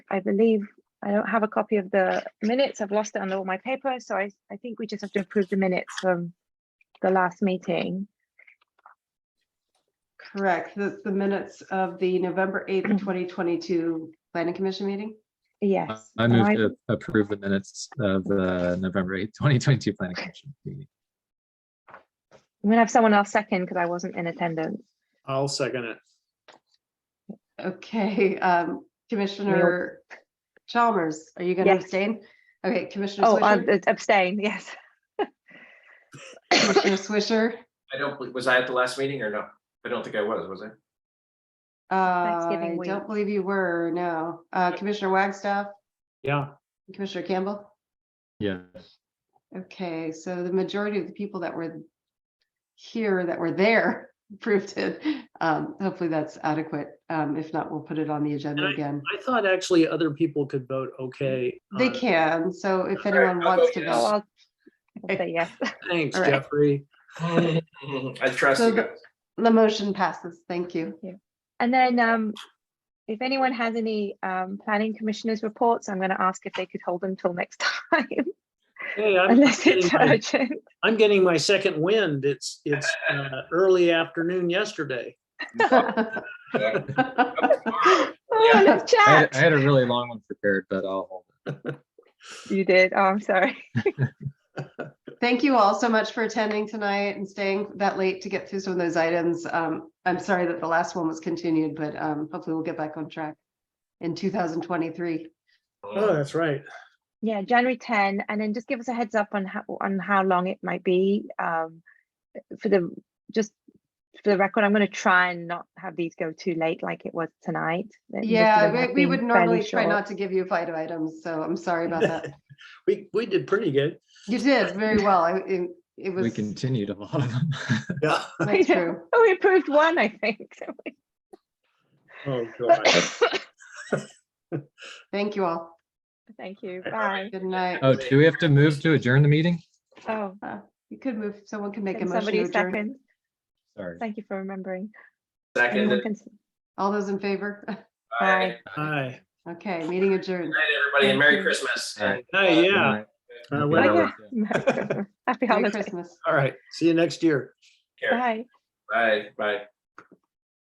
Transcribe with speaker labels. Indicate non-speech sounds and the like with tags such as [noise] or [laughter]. Speaker 1: I believe I don't have a copy of the minutes. I've lost it under all my paper, so I, I think we just have to approve the minutes from the last meeting.
Speaker 2: Correct. The, the minutes of the November 8th,
Speaker 1: Mm.
Speaker 2: 2022 Planning Commission meeting.
Speaker 1: Yes.
Speaker 3: I
Speaker 1: and
Speaker 3: move to approve the minutes of the November eighth, twenty twenty-two planning commission meeting.
Speaker 1: I'm gonna have someone else second because I wasn't in attendance.
Speaker 4: I'll second it.
Speaker 2: Okay, um, Commissioner Chalmers, are you going to
Speaker 1: Yes.
Speaker 2: abstain? Okay, Commissioner
Speaker 1: Oh, uh,
Speaker 2: Swisher,
Speaker 1: abstain, [laughs] yes. Oh,
Speaker 2: Commissioner Swisher.
Speaker 5: I don't, believe- was I at the last meeting or no? I don't think I was, was I?
Speaker 2: Uh, I
Speaker 1: Thanksgiving week.
Speaker 2: don't believe you were, no. Uh, Commissioner Wagstaff,
Speaker 4: Yeah,
Speaker 2: Commissioner Campbell.
Speaker 3: Yeah,
Speaker 5: [laughs]
Speaker 2: Okay, so the majority of the people that were here, that were there, [laughs] approved it. Um, hopefully that's adequate. Um, if not, we'll put it on the agenda
Speaker 4: And
Speaker 2: again.
Speaker 4: I thought actually other people could vote okay. Uh,
Speaker 2: They
Speaker 4: on-
Speaker 2: can, so if
Speaker 5: All right,
Speaker 2: anyone
Speaker 5: I'll
Speaker 2: wants to
Speaker 5: vote
Speaker 1: Oh,
Speaker 2: go,
Speaker 1: I'll I'll say yes.
Speaker 4: Thanks,
Speaker 2: All right.
Speaker 4: Jeffrey.
Speaker 5: I trust
Speaker 2: So
Speaker 5: you
Speaker 2: the-
Speaker 5: guys.
Speaker 2: the motion passes. Thank you.
Speaker 1: And then um, if anyone has any um, planning commissioners reports, I'm gonna ask if they could hold them till next [laughs] time,
Speaker 4: Hey, I'm
Speaker 1: unless
Speaker 4: getting
Speaker 1: it's
Speaker 4: my-
Speaker 1: urgent.
Speaker 4: I'm getting my second wind. It's, it's uh, early afternoon yesterday.
Speaker 5: Yeah.
Speaker 1: Oh, let's
Speaker 3: I had, I
Speaker 1: chat.
Speaker 3: had a really long one prepared, but I'll hold it.
Speaker 1: You did, oh, I'm sorry.
Speaker 2: [laughs] Thank you all so much for attending tonight and staying that late to get through some of those items. Um, I'm sorry that the last one was continued, but um, hopefully we'll get back on track in 2023.
Speaker 4: Oh, that's right.
Speaker 1: Yeah, January 10, and then just give us a heads up on how, on how long it might be. um, For the, just for the record, I'm gonna try and not have these go too late like it was tonight. that most of them
Speaker 2: Yeah,
Speaker 1: have
Speaker 2: we- we
Speaker 1: been
Speaker 2: would
Speaker 1: fairly
Speaker 2: normally try
Speaker 1: short.
Speaker 2: not to give you five items, so I'm sorry
Speaker 1: [laughs]
Speaker 2: about that.
Speaker 4: We, we did pretty good.
Speaker 2: You did very well. I- It it
Speaker 3: We
Speaker 2: was, [laughs]
Speaker 3: continued a lot of them.
Speaker 4: [laughs] Yeah.
Speaker 1: [laughs]
Speaker 2: that's
Speaker 1: Yeah.
Speaker 2: true.
Speaker 1: Oh, we approved one, I
Speaker 5: [laughs]
Speaker 1: think.
Speaker 2: [laughs]
Speaker 4: Oh, God.
Speaker 2: Thank you all.
Speaker 1: [laughs] Thank you,
Speaker 4: All
Speaker 1: bye.
Speaker 2: Good night.
Speaker 3: [laughs] Oh, do we have to move to adjourn the meeting?
Speaker 1: Oh,
Speaker 2: You could move, someone can make a
Speaker 1: can
Speaker 2: motion. to
Speaker 1: somebody
Speaker 2: adjourn.
Speaker 1: second?
Speaker 3: Sorry.
Speaker 1: Thank you for remembering.
Speaker 5: Second,
Speaker 1: Anyone
Speaker 5: and
Speaker 1: can s-
Speaker 2: All those in favor?
Speaker 5: bye.
Speaker 1: [laughs]
Speaker 4: Hi.
Speaker 2: Okay, meeting adjourned.
Speaker 5: Good Night, everybody, and
Speaker 1: Thank
Speaker 5: Merry
Speaker 1: you.
Speaker 5: Christmas.
Speaker 3: Alright.
Speaker 4: Hey, yeah.
Speaker 3: Good
Speaker 4: Uh,
Speaker 3: night.
Speaker 4: well,
Speaker 3: Happy
Speaker 1: yeah.
Speaker 3: holidays.
Speaker 1: Merry Christmas. Happy
Speaker 2: Merry
Speaker 1: holidays.
Speaker 2: Christmas.
Speaker 4: All right. See you next year.
Speaker 5: Take care.
Speaker 1: Bye.
Speaker 5: Bye, bye.